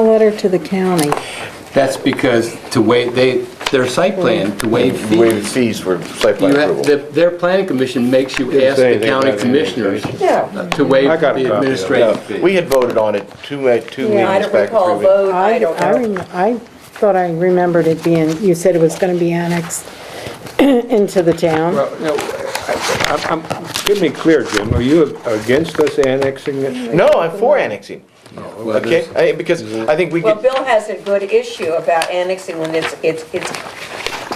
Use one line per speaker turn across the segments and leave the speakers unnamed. letter to the county.
That's because to waive, they, their site plan, to waive
Waived
fees.
fees for site
You
plan
have,
approval.
the- their planning commission makes you
Didn't
ask
say
the
anything
county
about any
commissioners
vacation.
Yeah.
to waive
I got a copy
the
of that.
administrative
No,
fee.
Uh, We had voted on it two, uh, two
Yeah, I
meetings
don't
back.
recall a
three weeks.
vote, I don't
I
know.
rem- I thought I remembered it being, you said it was going to be annexed into the town.
Well, Uh, no, I- I'm, I'm- get me clear, Jim, are you against us annexing it?
No, I'm for annexing,
Well, Mm-hmm.
okay?
there's-
I- Because I think we
Well,
could,
Bill has a good issue about annexing when it's, it's, it's,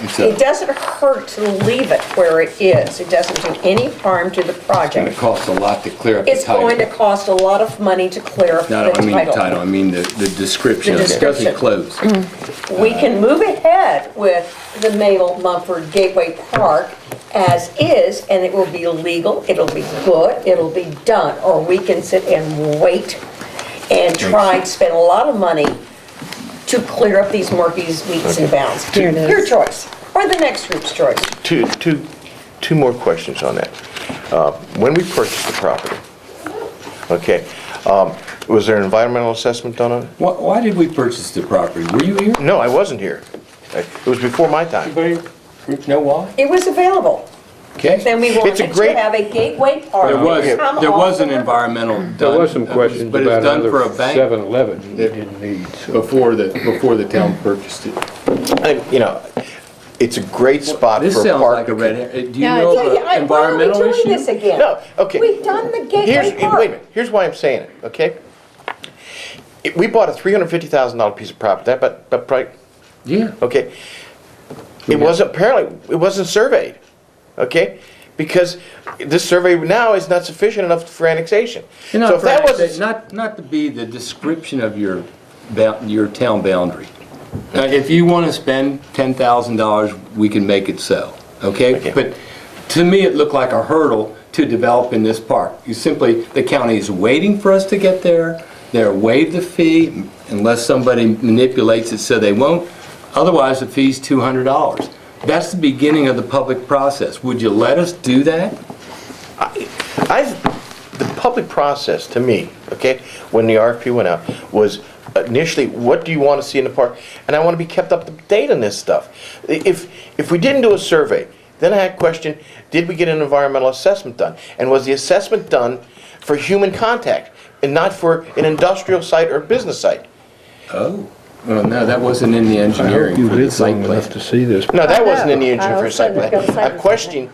it's
it
a-
doesn't hurt to leave it where it is. It doesn't do any harm to the
It
project.
costs a lot to clear up the
It's
title.
going to cost a lot of money to clear up
No,
the
no, I mean the title,
title.
I mean the, the description.
The
It doesn't
description. Mm.
close.
We can move ahead with the Mabel Mumford Gateway Park as is, and it will be legal, it'll be good, it'll be done. Or we can sit and wait and try and spend a lot of money to clear up these murkies, meets and bounds.
Here it is.
Your choice, or the next group's choice.
two, two, two more questions on that. Uh, When we purchased the property, okay, um, was there an environmental assessment done on it?
Why, why did we purchase the property? Were you here?
No, I wasn't here. It was before my time.
Anybody know why?
It was available. Then
Okay.
we wanted
a
to
great-
have a gateway park.
There was,
come
there
off
was
the
an
river.
environmental done.
There was some
uh,
questions
But it's
about
done
another
for a bank.
7-Eleven you didn't need, so.
before the, before the town purchased it.
And, You know, it's a great spot for a park.
This sounds like a
to-
red, her- do you
Yeah,
know
it's-
Yeah, yeah,
about
I- why are we
environmental
doing
issue?
this again?
No, okay.
We've done the
Here's,
gateway
wait a
park.
minute, here's why I'm saying it, okay? It- We bought a $350,000 piece of property, that, but, but, pri-
Yeah.
okay? It wasn't, apparently, it wasn't surveyed, okay? Because this survey now is not sufficient enough for annexation.
And
So if that
not for-
wasn't,
Not, not to be the description of your, bou- your town boundary. Now, If you want to spend $10,000, we can make it so, okay?
Okay.
But to me, it looked like a hurdle to develop in this park. You simply, the county is waiting for us to get there, they're waive the fee unless somebody manipulates it so they won't, otherwise the fee's $200. That's the beginning of the public process. Would you let us do that?
I, the public process, to me, okay, when the RFP went out, was initially, what do you want to see in the park? And I want to be kept up to date on this stuff. I- If, if we didn't do a survey, then I had a question, did we get an environmental assessment done? And was the assessment done for human contact and not for an industrial site or business site?
Oh. Well, no, that wasn't in the
I hope
engineering
you
for the
lived
site
long
plan.
enough to see this.
No, that
I
wasn't in
know.
the engine
I
for a site
also
plan.
looked at the site
I'm questioning,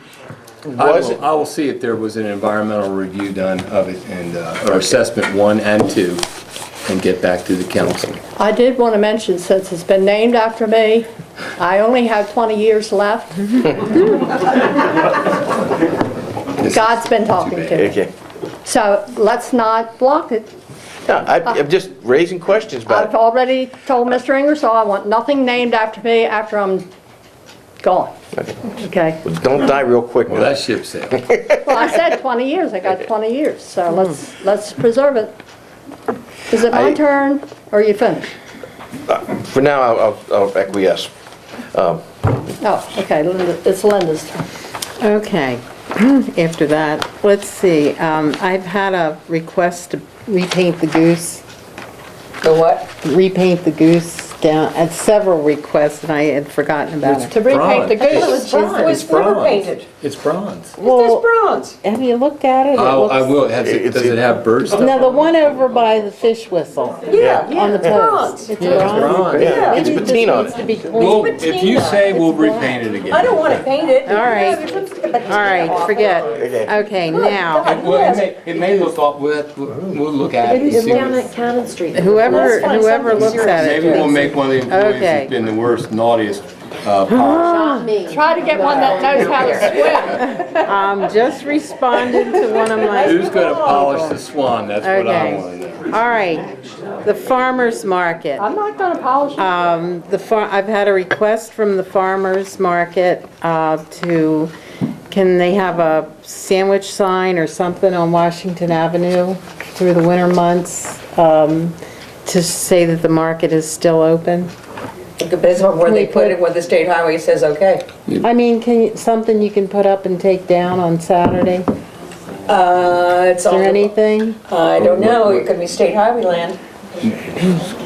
I
was it?
will, I will see if there was an environmental review done of it and, uh, or assessment one and two, and get back to the council.
I did want to mention, since it's been named after me, I only have 20 years left. God's been talking to me.
Okay.
So let's not block it.
No, I- I'm just raising questions about it.
I've already told Mr. Ingersoll I want nothing named after me after I'm gone. Okay?
Don't die real quick.
Well,
man.
that ship sailed.
Well, I said 20 years, I got 20 years, so let's, let's preserve it. Is it
I-
my turn, or are you finished?
For now, I'll- I'll I'll acquiesce.
Oh, okay, Linda- it's Linda's turn.
Okay, after that, let's see, um, I've had a request to repaint the goose
The what?
repaint the goose down, at several requests, and I had forgotten about it.
To repaint the
Bronze.
goose.
It was bronze, it
It's
was never
bronze.
painted.
It's bronze.
It's bronze.
Have you looked at it? It
Oh, I
looks-
will, has it, does it have birds?
No, the one over by the fish whistle.
Yeah,
On the
yeah, bronze.
post. It's bronze.
Bronze.
Yeah.
It's
Maybe it just
patina on
needs
it.
to be cleaned.
Well, if you say we'll repaint it again.
I don't want to paint it.
All right. All
All
right, forget. Okay, now,
God.
It- Well, it may, it may look off, we'll, we'll look at it and
It's
see.
down
what-
at Cannon Street.
whoever,
Let's find
whoever
something
looks at
Maybe
it,
we'll make one of the employees
Okay.
who's been the worst, naughtiest, uh,
Not me.
Try to get one that knows how to swim.
um, just responded to one of my
who's gonna polish the swan, that's what I
Okay.
wanna know.
All right, the farmer's market.
I'm not gonna polish it.
Um, The far, I've had a request from the farmer's market uh, to, can they have a sandwich sign or something on Washington Avenue through the winter months um, to say that the market is still open?
It depends on where they put it, where the state highway says, okay.
I mean, can, you- something you can put up and take down on Saturday? Is
Uh, It's
there
all,
anything?
I don't know, it could be state highway land.